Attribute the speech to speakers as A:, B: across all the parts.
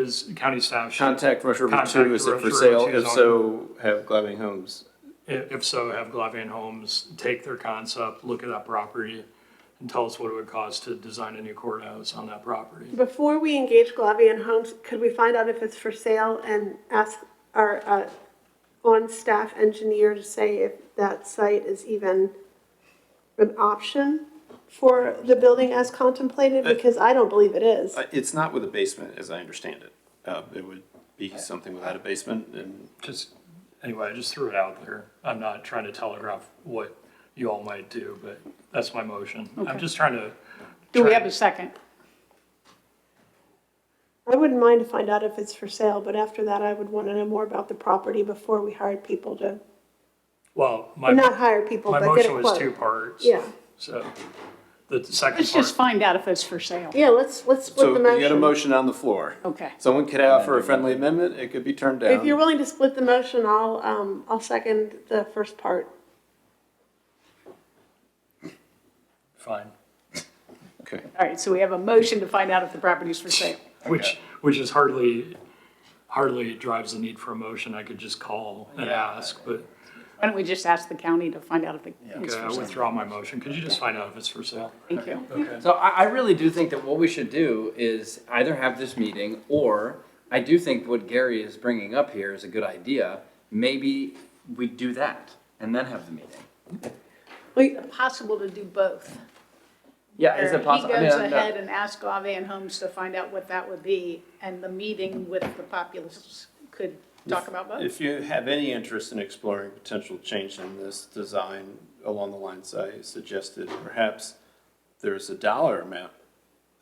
A: is county staff should,
B: Contact Rush River
A: Contact
B: Two, is it
A: Rush
B: for
A: River
B: sale?
A: Two is
B: If
A: on-
B: so, have Glavine Homes.
A: i- if so, have Glavian Homes take their concept, look at that property, and tell us what it would cost to design a new courthouse on that property.
C: Before we engage Glavian Homes, could we find out if it's for sale and ask our uh, on-staff engineer to say if that site is even an option for the building as contemplated? Because I don't believe it is.
D: Uh, It's not with a basement, as I understand it. Uh, it would be something without a basement and
A: Just, anyway, I just threw it out there. I'm not trying to telegraph what you all might do, but that's my motion. I'm just trying to.
E: Do we
A: try-
E: have a second?
C: I wouldn't mind to find out if it's for sale, but after that, I would want to know more about the property before we hired people to,
A: Well, my,
C: not hire people,
A: my
C: but get a
A: motion
C: quote.
A: was two parts.
C: Yeah,
A: So the second
E: Let's just
A: part,
E: find out if it's for sale.
C: yeah, let's, let's
D: so
C: split the
D: you
C: motion.
D: got a motion on the floor.
E: Okay.
D: Someone could offer a friendly amendment, it could be turned
C: If you're
D: down.
C: willing to split the motion, I'll, um, I'll second the first part.
A: fine.
D: Okay.
E: All right, so we have a motion to find out if the property is for sale.
A: Which, which is hardly, hardly drives the need for a motion. I could just call and ask, but
E: Why don't we just ask the county to find out if it is
A: okay, I
E: for sale?
A: withdraw my motion. Could you just find out if it's for sale?
E: Thank you.
F: So I, I really do think that what we should do is either have this meeting or I do think what Gary is bringing up here is a good idea. Maybe we do that and then have the meeting.
C: Wait,
E: Possible to do both.
F: Yeah, is it possible?
E: He goes ahead and asks Glavine Homes to find out what that would be, and the meeting with the populace could talk about both.
D: If you have any interest in exploring potential change in this design along the lines I suggested, perhaps there's a dollar amount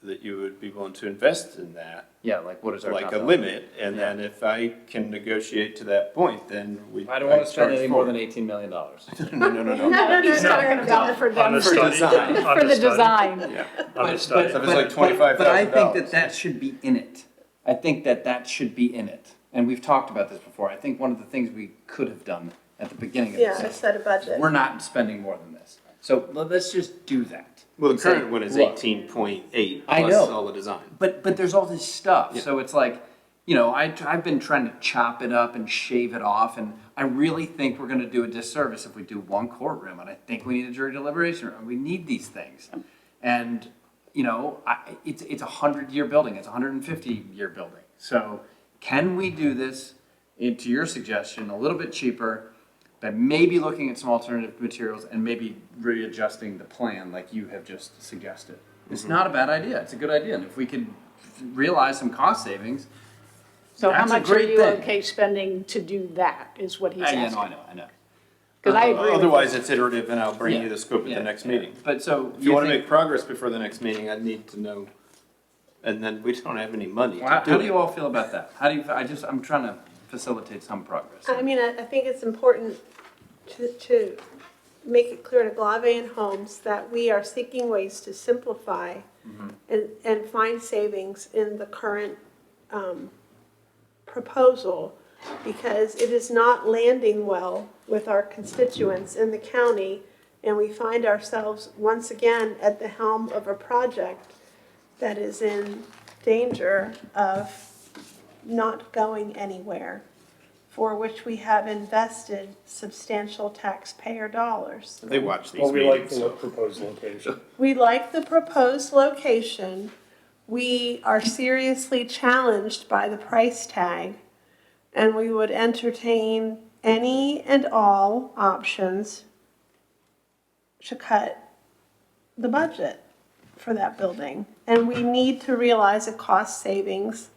D: that you would be willing to invest in that,
F: Yeah, like what is our?
D: like
F: top
D: a
F: dollar?
D: limit, and then if I can negotiate to that point, then we.
F: I don't want to spend
D: charge
F: any more
D: forward.
F: than eighteen million dollars.
D: No, no, no, no.
E: He's talking about for
A: On
E: them,
A: the
E: for
A: study.
D: design.
A: On
E: the
A: study.
E: design.
A: On the study.
D: So if it's like
F: But I think
D: $25,000.
F: that that should be in it. I think that that should be in it. And we've talked about this before. I think one of the things we could have done at the beginning of
C: Yeah,
F: this
C: I
F: is,
C: set a budget.
F: we're not spending more than this. So let- let's just do that.
D: Well, the
F: Say,
D: current one is
F: look,
D: eighteen point eight
F: I
D: plus
F: know.
D: all the design.
F: But, but there's all this stuff, so it's like, you know, I, I've been trying to chop it up and shave it off, and I really think we're gonna do a disservice if we do one courtroom, and I think we need a jury deliberation room, we need these things. And, you know, I, it's, it's a hundred-year building, it's a hundred and fifty-year building, so can we do this, eh, to your suggestion, a little bit cheaper, but maybe looking at some alternative materials and maybe readjusting the plan like you have just suggested. It's
D: Mm-hmm.
F: not a bad idea. It's a good idea. And if we could realize some cost savings,
E: So how
F: That's a
E: much are
F: great
E: you
F: thing.
E: okay spending to do that, is what he's
F: I, yeah, no, I
E: asking.
F: know, I know.
E: Because I agree with
D: Otherwise, it's iterative and I'll bring you
F: Yeah.
D: the scope at
F: Yeah.
D: the next meeting.
F: But so
D: If you wanna
F: think-
D: make progress before the next meeting, I'd need to know, and then we don't have any money
F: well, how,
D: to
F: how do you
D: do it.
F: all feel about that? How do you? I just I'm trying to facilitate some progress.
C: I mean, I, I think it's important to, to make it clear to Glavan Homes that we are seeking ways to simplify and, and find savings in the current, um, proposal, because it is not landing well with our constituents in the county, and we find ourselves once again at the helm of a project that is in danger of not going anywhere for which we have invested substantial taxpayer dollars.
D: They watch these
G: Well, we like
D: meetings.
G: the
D: so-
G: proposed location.
C: We like the proposed location. We are seriously challenged by the price tag, and we would entertain any and all options to cut the budget for that building. And we need to realize a cost savings.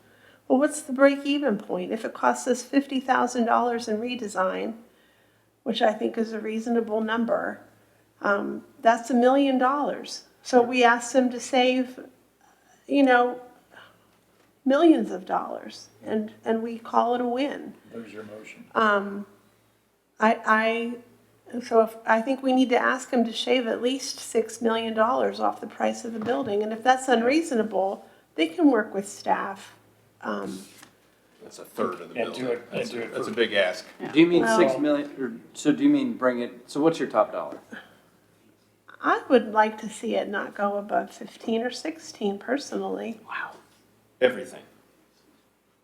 C: Well, what's the break-even point? If it costs us fifty thousand dollars in redesign, which I think is a reasonable number, um, that's a million dollars. So we asked them to save, you know, millions of dollars, and, and we call it a win.
G: There's your motion.
C: Um, I, I, so if, I think we need to ask them to shave at least six million dollars off the price of the building, and if that's unreasonable, they can work with staff. Um,
D: That's a third of the
G: And do
D: building.
G: it-
D: That's
G: and do
D: a-
G: it
D: that's a
G: for-
D: big ask.
F: Do you mean six
C: Well-
F: million? Or, so do you mean bring it? So what's your top dollar?
C: I would like to see it not go above fifteen or sixteen personally.
D: Everything.